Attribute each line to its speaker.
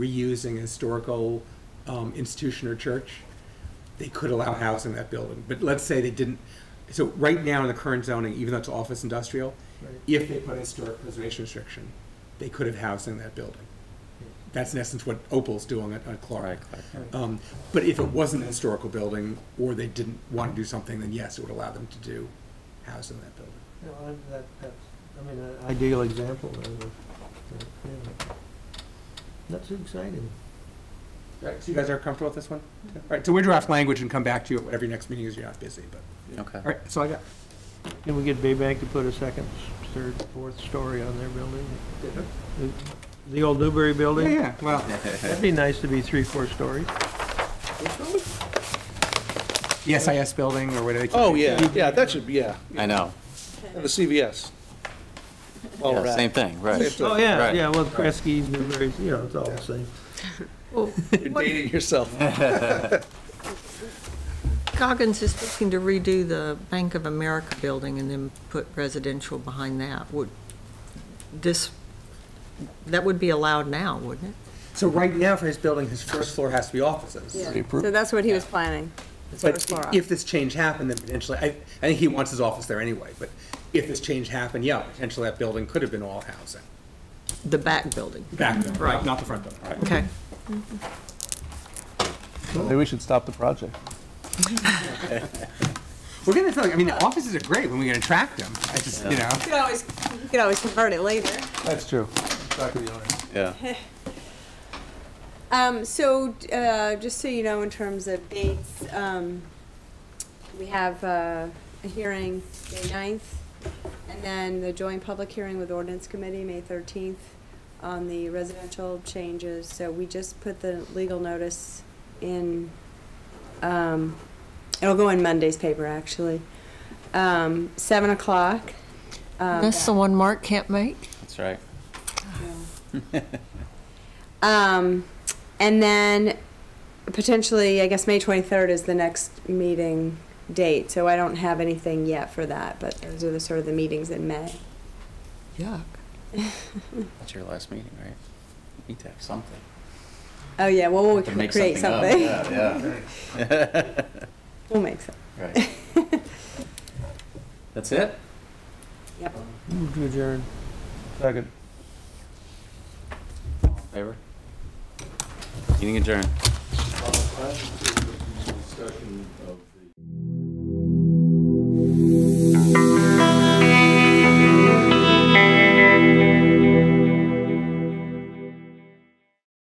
Speaker 1: reusing a historical um, institution or church, they could allow housing in that building. But let's say they didn't, so right now in the current zoning, even though it's office industrial, if they put a historic preservation restriction, they could have housing in that building. That's in essence what Opal's doing at, at Clark. Um, But if it wasn't a historical building, or they didn't want to do something, then yes, it would allow them to do housing in that building.
Speaker 2: You know, and that, that's, I mean, an ideal example of, uh, yeah. That's exciting.
Speaker 1: Right, so you guys are comfortable with this one? All right, so we draft language and come back to you at whatever your next meeting is, you're not busy, but,
Speaker 3: Okay.
Speaker 1: all right, that's all I got.
Speaker 2: Can we get Baybank to put a second, third, fourth story on their building? The- The old Newbury
Speaker 1: Yeah,
Speaker 2: building?
Speaker 1: yeah, well,
Speaker 2: That'd be nice to be three, four stories.
Speaker 1: the SIS building or whatever. they keep
Speaker 4: Oh,
Speaker 1: it.
Speaker 4: yeah, yeah, that should be, yeah,
Speaker 3: I know.
Speaker 4: and the CVS. All
Speaker 3: Yeah,
Speaker 4: right.
Speaker 3: Same thing,
Speaker 4: Same
Speaker 3: right.
Speaker 4: thing.
Speaker 2: Oh, yeah,
Speaker 3: Right.
Speaker 2: yeah, well, Kresge's, Newbury's, you know, it's all the same.
Speaker 4: You're dating yourself.
Speaker 5: Goggins is looking to redo the Bank of America building and then put residential behind that. Would, this, that would be allowed now, wouldn't it?
Speaker 1: So right now for his building, his first floor has to be offices.
Speaker 6: So that's what he was planning. his first floor
Speaker 1: But
Speaker 6: up.
Speaker 1: if this change happened, then potentially, I, I think he wants his office there anyway, but if this change happened, yeah, potentially that building could have been all housing.
Speaker 5: The back building,
Speaker 1: Back there, right, not the front building. Right.
Speaker 5: okay.
Speaker 7: Maybe we should stop the project.
Speaker 1: We're gonna, feel like- I mean, the offices are great when we can attract them, I just, you know.
Speaker 6: You could always, you could always convert it later.
Speaker 7: That's true.
Speaker 3: Yeah.
Speaker 6: Um, so, uh, just so you know, in terms of dates, um, we have, uh, a hearing May ninth, and then the joint public hearing with ordinance committee, May thirteenth, on the residential changes, so we just put the legal notice in, um, it'll go in Monday's paper, actually, um, seven o'clock. um,
Speaker 5: That's the one Mark can't make?
Speaker 3: That's right.
Speaker 6: Um, and then potentially, I guess May twenty-third is the next meeting date, so I don't have anything yet for that, but those are the sort of the meetings in May.
Speaker 5: Yuck.
Speaker 3: That's your last meeting, right? You Need to have something.
Speaker 6: Oh, yeah, well, we'll
Speaker 3: To make
Speaker 6: create
Speaker 3: up.
Speaker 6: something.
Speaker 3: Yeah, yeah.
Speaker 6: We'll make some.
Speaker 3: Right. That's it?
Speaker 6: Yep.
Speaker 2: Move to adjourn.
Speaker 7: Second.
Speaker 3: Favor? Meeting adjourned.
Speaker 8: Uh, I have a discussion of